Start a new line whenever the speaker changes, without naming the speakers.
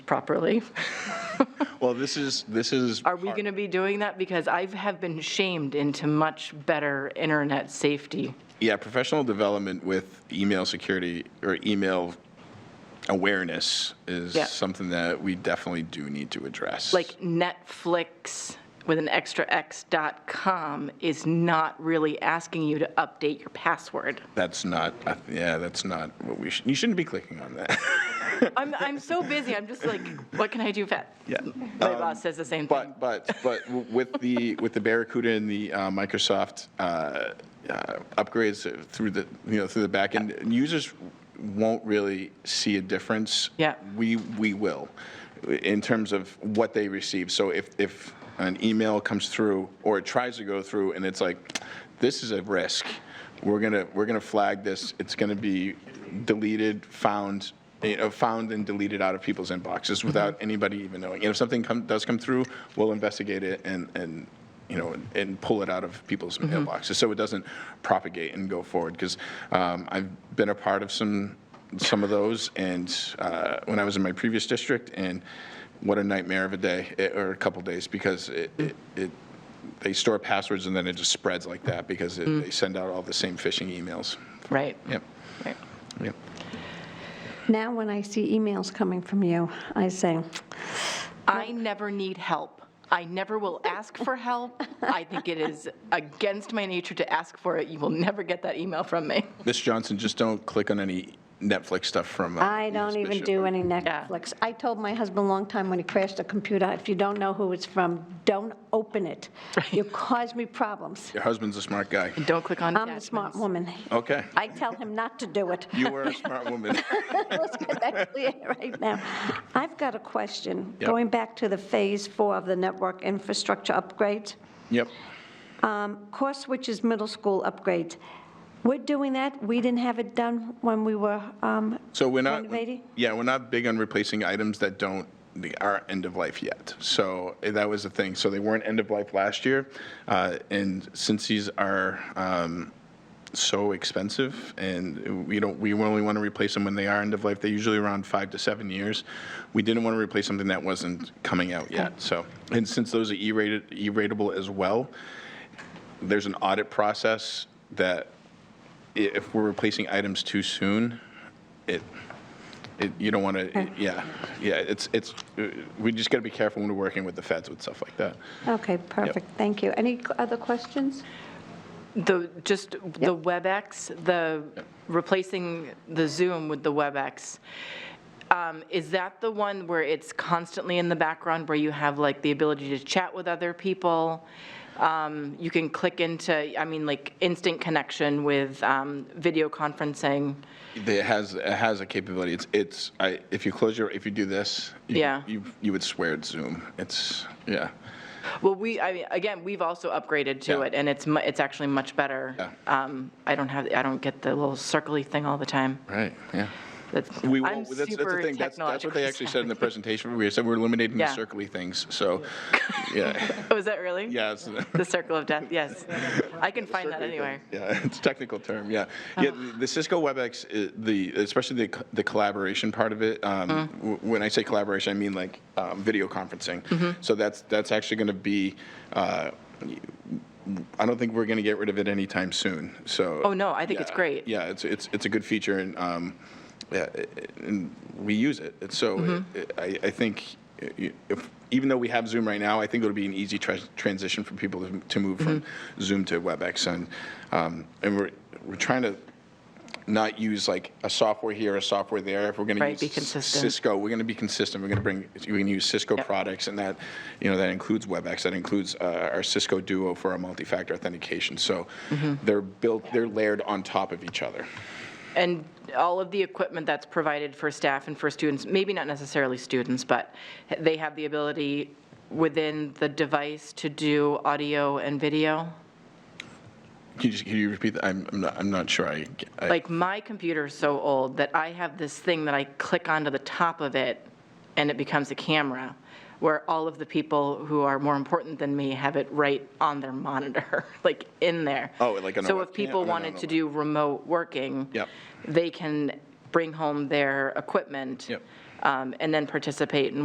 properly.
Well, this is, this is.
Are we going to be doing that? Because I have been shamed into much better internet safety.
Yeah, professional development with email security or email awareness is
Yeah.
something that we definitely do need to address.
Like Netflix with an extra X dot com is not really asking you to update your password.
That's not, I- yeah, that's not what we should, you shouldn't be clicking on that.
I'm, I'm so busy, I'm just like, what can I do? fa-
Yeah. Um,
My boss says the same thing.
But, but, but with the, with the Barracuda and the uh, Microsoft uh, uh, upgrades through the, you know, through the backend, users won't really see a difference.
Yeah.
We, we will, in terms of what they receive. So if, if an email comes through, or it tries to go through, and it's like, this is a risk, we're gonna, we're gonna flag this, it's gonna be deleted, found, you know, found and deleted out of people's inboxes without anybody even knowing. And if something come, does come through, we'll investigate it and, and, you know, and- and pull it out of people's
Mm-hmm.
mailboxes, so it doesn't propagate and go forward, because I've been a part of some, some of those, and uh, when I was in my previous district, and what a nightmare of a day, eh, or a couple days, because it, it- it, they store passwords and then it just spreads like that, because it-
Mm.
they send out all the same phishing emails.
Right.
Yep,
Right.
yep.
Mm. Now, when I see emails coming from you, I say,
I never need help. I never will ask for help. I think it is against my nature to ask for it. You will never get that email from me.
Ms. Johnson, just don't click on any Netflix stuff from. uh,
I don't
Ms.
even
Bishop.
do any
Yeah.
Netflix. I told my husband a long time when he crashed the computer, if you don't know who it's from, don't open it. You cause me problems.
Your husband's a smart guy.
Don't click on
I'm a
attachments.
smart woman.
Okay,
I tell him not to do it.
you were a smart woman.
Let's get that clear right now. I've got a question.
Yep.
Going back to the Phase 4 of the network infrastructure upgrades,
Yep.
course which is middle school upgrades. We're doing that. We didn't have it done when we were um,
So we're not,
Renovating?
yeah, we're not big on replacing items that don't, they are end of life yet. So eh, that was the thing. So they weren't end of life last year. uh, And since these are um, so expensive and we don't, we only want to replace them when they are end of life, they're usually around five to seven years. We didn't want to replace something that wasn't coming out yet. So, and since those are E-rated, E-ratable as well, there's an audit process that i- if we're replacing items too soon, it, it, you don't want to, yeah, yeah, it's, it's, uh, we just got to be careful when we're working with the feds with stuff like that.
Okay, perfect, thank you. Any c- other questions?
The, just the WebEx, the, replacing the Zoom with the WebEx, um, is that the one where it's constantly in the background, where you have like the ability to chat with other people? Um, You can click into, I mean, like instant connection with um, video conferencing?
It has, it has a capability, it's, it's, I, if you close your, if you do this, you-
Yeah.
you, you would swear it's Zoom, it's, yeah,
Well, we, I mean, again, we've also upgraded to
Yeah.
it, and it's, mu- it's actually much better.
Yeah.
Um, I don't have, I don't get the little circly thing all the time.
right, yeah.
That's-
We, will-
I'm
that's, that's
super
the thing, that's, that's what
technologically
they actually said in the presentation, we said we're eliminating the
Yeah.
circly things, so, yeah,
Oh, is that really?
yeah, it's,
The circle of death, yes. I can find that
Circular
anywhere.
thing. Yeah, it's a technical term, yeah. Yeah, the- the Cisco WebEx, uh, the, especially the, co- the collaboration part of it, um, w- when I say collaboration, I mean like um, video conferencing. So that's, that's actually going to be, uh, I don't think we're going to get rid of it anytime soon, so.
Oh, no, I think it's
Yeah,
great.
Yeah, it's, it's, it's a good feature and, um, yeah, i- i- and we use it. And so
Mm-hmm.
it- I, I think i- if, even though we have Zoom right now, I think it'll be an easy tra- transition for people to- to move from
Mm-hmm.
Zoom to WebEx. And, um, and we're, we're trying to not use like a software here, a software there. If we're going to
Right,
use
be consistent.
Cisco, we're going to be consistent. We're going to bring, we're going to use Cisco
Yep.
products, and that, you know, that includes WebEx, that includes uh, our Cisco Duo for our multi-factor authentication. So
Mm-hmm.
they're built, they're layered on top of each other.
And all of the equipment that's provided for staff and for students, maybe not necessarily students, but they have the ability within the device to do audio and video?
Can you, just- can you repeat that? I'm, I'm not, I'm not sure I, I-
Like, my computer's so old that I have this thing that I click onto the top of it, and it becomes a camera, where all of the people who are more important than me have it right on their monitor, like, in there.
Oh, like on a
So if
webcam?
people
No, no,
wanted
no,
to
no.
do remote working.
Yep.
They can bring home their equipment.
Yep.
um, And then participate in